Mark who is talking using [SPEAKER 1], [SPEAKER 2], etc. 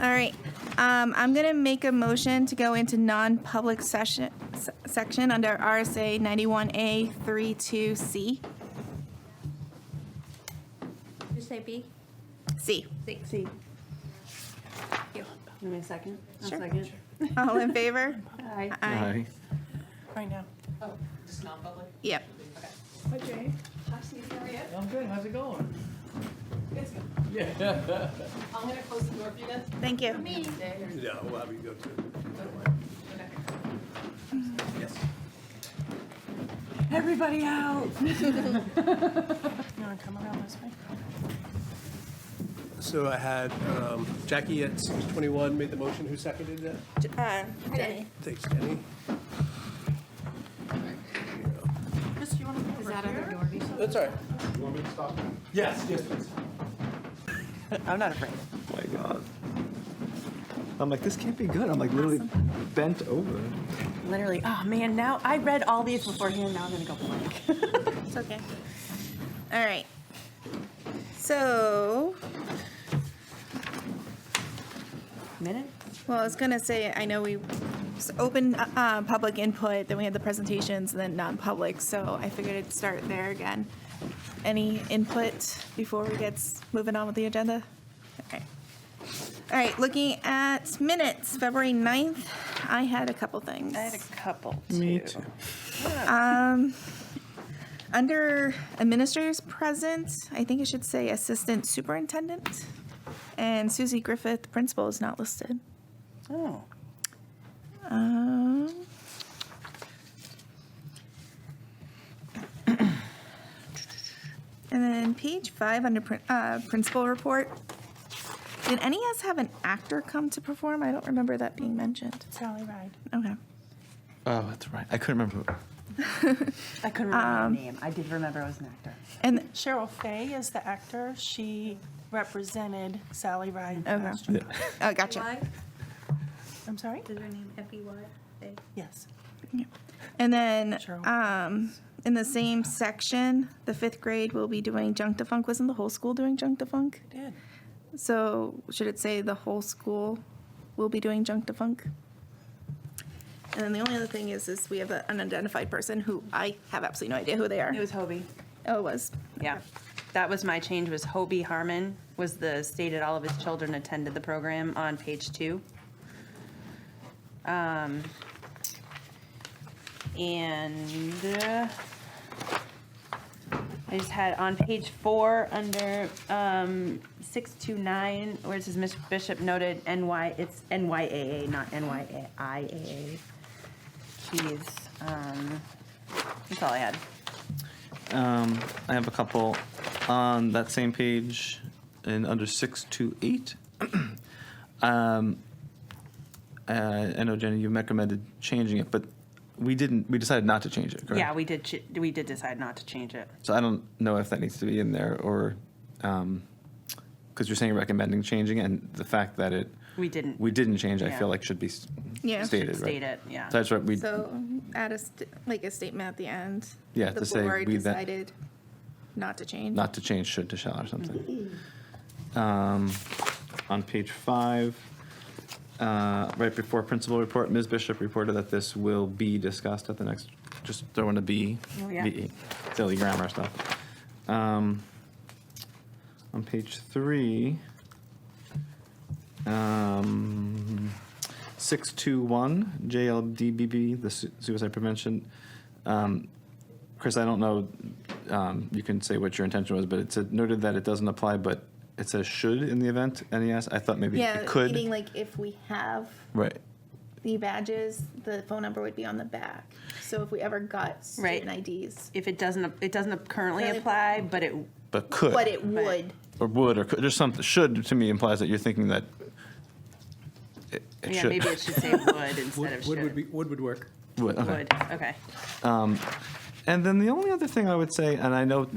[SPEAKER 1] All right, um, I'm gonna make a motion to go into non-public session, se- section under RSA 91A 32C.
[SPEAKER 2] Did you say B?
[SPEAKER 1] C.
[SPEAKER 2] C.
[SPEAKER 3] See,
[SPEAKER 2] Thank you.
[SPEAKER 3] give me a second. A
[SPEAKER 1] Sure.
[SPEAKER 3] second.
[SPEAKER 1] All in favor?
[SPEAKER 3] Aye.
[SPEAKER 4] Aye.
[SPEAKER 1] Right now.
[SPEAKER 5] Oh, just non-public?
[SPEAKER 1] Yep.
[SPEAKER 5] Hi, Steve, how are you?
[SPEAKER 6] I'm good, how's it going?
[SPEAKER 5] It's good.
[SPEAKER 6] Yeah.
[SPEAKER 5] I'm gonna close the door for you then.
[SPEAKER 1] Thank you.
[SPEAKER 5] Stay here.
[SPEAKER 7] Yeah, we'll have you go to.
[SPEAKER 5] Okay.
[SPEAKER 7] Yes.
[SPEAKER 3] Everybody out.
[SPEAKER 7] So I had um, Jackie at 6:21 made the motion. Who seconded it?
[SPEAKER 1] Uh,
[SPEAKER 7] Thanks, Jenny.
[SPEAKER 3] Is that other door?
[SPEAKER 7] That's all right. You want me to stop? Yes, yes, please.
[SPEAKER 3] I'm not afraid.
[SPEAKER 4] My God. I'm like, this can't be good. I'm like really bent over.
[SPEAKER 3] Literally, oh man, now, I read all these beforehand, now I'm gonna go blank.
[SPEAKER 1] It's okay. All right. So,
[SPEAKER 3] Minute?
[SPEAKER 1] well, I was gonna say, I know we s- opened uh, uh, public input, then we had the presentations, and then non-public, so I figured I'd start there again. Any input before we get s- moving on with the agenda? Okay. All right, looking at minutes, February 9th, I had a couple things.
[SPEAKER 3] couple.
[SPEAKER 4] Me too.
[SPEAKER 1] Under administrators present, I think it should say assistant superintendent. And Susie Griffith, principal, is not listed.
[SPEAKER 3] Oh.
[SPEAKER 1] Um, And then page five, under prin- uh, principal report. Did any of us have an actor come to perform? I don't remember that being mentioned. Sally Ride. Okay.
[SPEAKER 4] Oh, that's right. I couldn't remember.
[SPEAKER 3] I couldn't
[SPEAKER 1] Um,
[SPEAKER 3] remember her name. I did remember I was an actor.
[SPEAKER 1] And,
[SPEAKER 8] Cheryl Fay is the actor. She represented Sally Ride.
[SPEAKER 1] okay. Oh, gotcha.
[SPEAKER 2] Why?
[SPEAKER 8] I'm sorry?
[SPEAKER 2] Is her name E F-E-Y? They-
[SPEAKER 8] Yes.
[SPEAKER 1] And then um,
[SPEAKER 8] Cheryl.
[SPEAKER 1] in the same section, the fifth grade will be doing junk defunk. Wasn't the whole school doing junk defunk?
[SPEAKER 8] Did.
[SPEAKER 1] So should it say the whole school will be doing junk defunk? And then the only other thing is, is we have an unidentified person who I have absolutely no idea who they are.
[SPEAKER 3] It was Hobie.
[SPEAKER 1] Oh, it was.
[SPEAKER 3] Yeah. That was my change, was Hobie Harmon was the stated all of his children attended the program on page two. Um, And uh, I just had on page four, under um, 629, where it says Ms. Bishop noted NY, it's NYAA, not NYIAA. Jeez, um, that's all I had.
[SPEAKER 4] Um, I have a couple on that same page and under 628. um, uh, I know, Jenny, you recommended changing it, but we didn't, we decided not to change it, correct?
[SPEAKER 3] Yeah, we did, ch- we did decide not to change it.
[SPEAKER 4] So I don't know if that needs to be in there or, because you're saying recommending changing it, and the fact that it,
[SPEAKER 3] We didn't.
[SPEAKER 4] we didn't change, I
[SPEAKER 3] Yeah.
[SPEAKER 4] feel like should be s-
[SPEAKER 1] Yeah.
[SPEAKER 4] stated, right?
[SPEAKER 3] State it, yeah.
[SPEAKER 4] So that's right, we,
[SPEAKER 1] So add a, st- like a statement at the end.
[SPEAKER 4] Yeah, to say
[SPEAKER 1] The board
[SPEAKER 4] we that-
[SPEAKER 1] decided not to change.
[SPEAKER 4] not to change should to shall or something. Um, On page five, uh, right before principal report, Ms. Bishop reported that this will be discussed at the next, just throwing a B.
[SPEAKER 3] Oh, yeah.
[SPEAKER 4] B, Silly grammar stuff. Um, On page three, um, 621, JLDBB, the su- suicide prevention. Um, Chris, I don't know, um, you can say what your intention was, but it said noted that it doesn't apply, but it says should in the event NES. I thought maybe
[SPEAKER 1] Yeah,
[SPEAKER 4] it could.
[SPEAKER 1] meaning like if we have
[SPEAKER 4] right.
[SPEAKER 1] the badges, the phone number would be on the back. So if we ever got
[SPEAKER 3] Right.
[SPEAKER 1] student IDs,
[SPEAKER 3] If it doesn't, it doesn't currently
[SPEAKER 1] Currently-
[SPEAKER 3] apply, but it,
[SPEAKER 4] But could.
[SPEAKER 1] but it would.
[SPEAKER 4] or would or could. There's something. Should to me implies that you're thinking that it, it
[SPEAKER 3] yeah,
[SPEAKER 4] should.
[SPEAKER 3] maybe it should say would instead of
[SPEAKER 7] Wood would be,
[SPEAKER 3] should.
[SPEAKER 7] wood would work.
[SPEAKER 4] would. Okay.
[SPEAKER 3] Would, okay.
[SPEAKER 4] And then the only other thing I would say, and I know